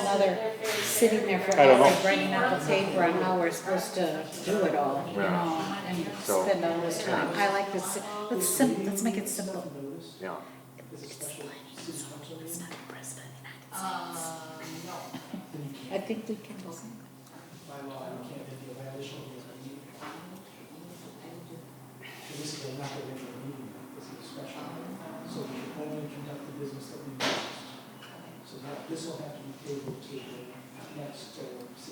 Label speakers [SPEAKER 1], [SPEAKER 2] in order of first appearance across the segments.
[SPEAKER 1] they're sitting there
[SPEAKER 2] I don't
[SPEAKER 1] forever
[SPEAKER 2] know.
[SPEAKER 1] bringing up the paper on how we're supposed to do it all, you
[SPEAKER 3] Yeah.
[SPEAKER 1] know, and
[SPEAKER 3] So-
[SPEAKER 1] spend all this time. I like this, let's sim, let's make it simple.
[SPEAKER 3] Yeah.
[SPEAKER 1] I think we can.
[SPEAKER 4] By law, you can't make a violation of the meeting. In this case, not going to meeting, it's a discussion. So we can only conduct the business that we need. So that, this will have to be tabled to the next,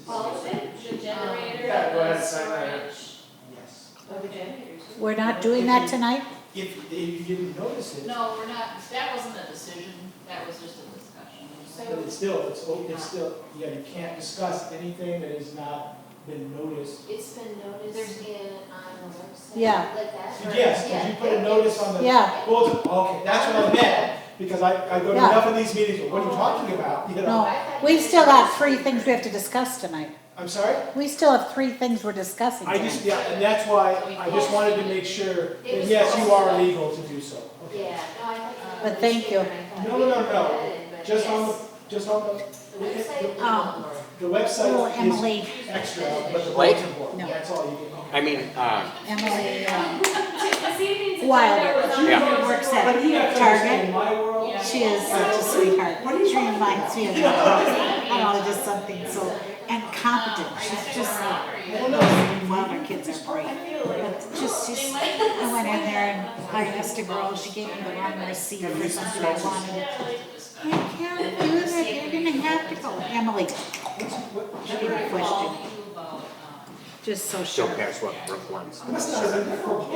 [SPEAKER 4] uh, six.
[SPEAKER 5] The generator,
[SPEAKER 4] Yeah, go
[SPEAKER 5] the
[SPEAKER 4] ahead, sign that.
[SPEAKER 5] storage.
[SPEAKER 4] Yes.
[SPEAKER 5] Oh, the generators.
[SPEAKER 1] We're not doing that tonight?
[SPEAKER 4] If, if you didn't notice it,
[SPEAKER 6] No, we're not, that wasn't a decision, that was just a discussion.
[SPEAKER 4] but it's still, it's, o- it's still, yeah, you can't discuss anything that has not been noticed.
[SPEAKER 5] It's been noticed in, on the website.
[SPEAKER 1] Yeah.
[SPEAKER 5] Like that. right?
[SPEAKER 4] Yes, because you put a notice on the
[SPEAKER 1] Yeah,
[SPEAKER 4] bulletin, okay, that's what I meant. Because I, I go to
[SPEAKER 1] Yeah.
[SPEAKER 4] enough of these meetings, what are you talking about, you know?
[SPEAKER 1] no, we still have three things we have to discuss tonight.
[SPEAKER 4] I'm sorry?
[SPEAKER 1] We still have three things we're discussing
[SPEAKER 4] I just,
[SPEAKER 1] tonight.
[SPEAKER 4] yeah, and that's why, I just wanted to make sure, that
[SPEAKER 5] It was
[SPEAKER 4] yes, you
[SPEAKER 5] possible.
[SPEAKER 4] are legal to do so. Okay.
[SPEAKER 5] Yeah, no, I thought.
[SPEAKER 1] But thank you.
[SPEAKER 4] No, no, no, no, just on the, just on the,
[SPEAKER 5] The website.
[SPEAKER 1] Um,
[SPEAKER 4] the
[SPEAKER 1] Little
[SPEAKER 4] website is
[SPEAKER 1] Emily,
[SPEAKER 4] extra, but the
[SPEAKER 3] Wait.
[SPEAKER 4] bulletin board,
[SPEAKER 1] No.
[SPEAKER 4] that's all you get.
[SPEAKER 3] I mean, uh,
[SPEAKER 1] Emily, um,
[SPEAKER 5] This evening's
[SPEAKER 1] Wilder.
[SPEAKER 5] agenda was on
[SPEAKER 3] Yeah.
[SPEAKER 5] the
[SPEAKER 1] Works
[SPEAKER 5] bulletin
[SPEAKER 4] But you have to understand, in my world,
[SPEAKER 6] Yeah.
[SPEAKER 1] she is such a sweetheart. She reminds me of, I don't know, just something so, and competent, she's just like,
[SPEAKER 4] well, no,
[SPEAKER 1] Wow, our kids are great. But just, just, I went in there and I asked a girl, she gave me the wrong receipt for something I wanted. You can't do that, you're gonna have to go, Emily,
[SPEAKER 4] what's- what-
[SPEAKER 1] she didn't question,
[SPEAKER 6] Call you about, um,
[SPEAKER 1] just so
[SPEAKER 3] she'll
[SPEAKER 1] sure.
[SPEAKER 3] pass what Brooke wants.
[SPEAKER 4] that's not a report.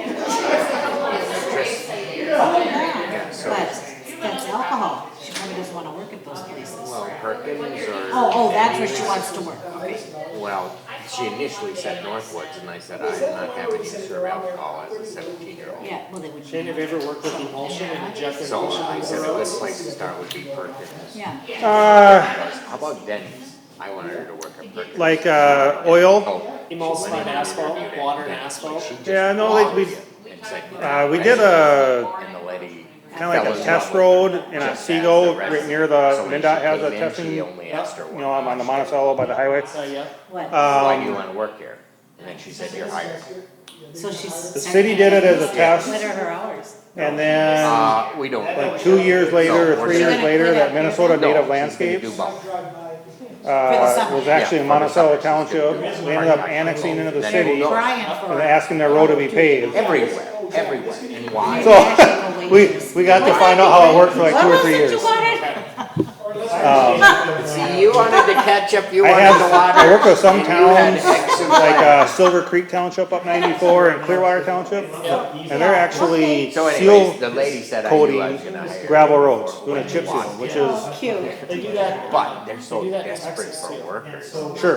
[SPEAKER 1] Oh,
[SPEAKER 3] Yeah,
[SPEAKER 1] yeah,
[SPEAKER 3] so-
[SPEAKER 1] but that's alcohol, she probably doesn't wanna work at those places.
[SPEAKER 3] Well, Perkins or.
[SPEAKER 1] Oh, oh, that's where she wants to work, okay.
[SPEAKER 3] Well, she initially said Northwoods, and I said, I'm not having you serve alcohol as a seventeen-year-old.
[SPEAKER 1] Yeah, well, they would.
[SPEAKER 7] Shane, have you ever worked with emulsion and injected
[SPEAKER 3] So
[SPEAKER 7] emulsion
[SPEAKER 3] I
[SPEAKER 7] into the
[SPEAKER 3] said, the best
[SPEAKER 7] roads?
[SPEAKER 3] place to start would be Perkins.
[SPEAKER 1] Yeah.
[SPEAKER 2] Uh,
[SPEAKER 3] How about Denny's? I wanted her to work at Perkins.
[SPEAKER 2] like uh, oil.
[SPEAKER 3] Oh, she went
[SPEAKER 7] Emulsified
[SPEAKER 3] in and interviewed
[SPEAKER 7] asphalt,
[SPEAKER 3] at
[SPEAKER 7] water and
[SPEAKER 3] Denny's, like,
[SPEAKER 7] asphalt?
[SPEAKER 3] she just
[SPEAKER 2] Yeah, no, like we-
[SPEAKER 3] loved it. It's like,
[SPEAKER 2] Uh, we did a
[SPEAKER 3] And the lady.
[SPEAKER 2] kind of
[SPEAKER 3] fell
[SPEAKER 2] like
[SPEAKER 3] in
[SPEAKER 2] a
[SPEAKER 3] love
[SPEAKER 2] test
[SPEAKER 3] with her.
[SPEAKER 2] road in Otsego,
[SPEAKER 3] the rest.
[SPEAKER 2] right near the
[SPEAKER 3] So when she
[SPEAKER 2] MinDOT Uh, has
[SPEAKER 3] came
[SPEAKER 2] a
[SPEAKER 3] in,
[SPEAKER 2] testing. uh,
[SPEAKER 3] She
[SPEAKER 2] You
[SPEAKER 3] only asked her one.
[SPEAKER 2] know, I'm on the Monticello by the highway.
[SPEAKER 7] So, Uh, yeah.
[SPEAKER 1] What?
[SPEAKER 3] Why do you
[SPEAKER 2] Um,
[SPEAKER 3] wanna work here? And then she said, you're hired.
[SPEAKER 1] So she's.
[SPEAKER 2] The city did it as a test.
[SPEAKER 1] What are her hours?
[SPEAKER 2] and then
[SPEAKER 3] Uh, we don't.
[SPEAKER 2] like two years later or three years later, that Minnesota Native Landscapes
[SPEAKER 3] Do both.
[SPEAKER 2] uh, was actually in Monticello Township. They ended up annexing into the city and
[SPEAKER 1] Brian
[SPEAKER 3] "Oh,
[SPEAKER 1] for.
[SPEAKER 2] asking their road to be paved.
[SPEAKER 3] Everywhere, everywhere, and why?
[SPEAKER 2] So, We, we got to find out how it worked for like two or three years. Um,
[SPEAKER 3] See, you wanted to catch up, you
[SPEAKER 2] I
[SPEAKER 3] wanted
[SPEAKER 2] have,
[SPEAKER 3] to
[SPEAKER 2] I
[SPEAKER 3] water.
[SPEAKER 2] work with some
[SPEAKER 3] And you had
[SPEAKER 2] towns,
[SPEAKER 3] X and
[SPEAKER 2] like,
[SPEAKER 3] Y.
[SPEAKER 2] uh, Silver Creek Township up ninety-four and Clearwater Township, and they're actually
[SPEAKER 3] So anyways,
[SPEAKER 2] seal
[SPEAKER 3] the lady said I knew I was
[SPEAKER 2] coating
[SPEAKER 3] gonna hire. you
[SPEAKER 2] gravel roads,
[SPEAKER 3] for
[SPEAKER 2] doing a
[SPEAKER 3] what
[SPEAKER 2] chip
[SPEAKER 3] you
[SPEAKER 2] seal,
[SPEAKER 3] want.
[SPEAKER 2] which is,
[SPEAKER 1] Oh, Cute.
[SPEAKER 7] They do that
[SPEAKER 3] But they're
[SPEAKER 7] They
[SPEAKER 3] so
[SPEAKER 7] do that in
[SPEAKER 3] desperate
[SPEAKER 7] Texas,
[SPEAKER 3] for
[SPEAKER 7] too.
[SPEAKER 3] workers.
[SPEAKER 2] sure,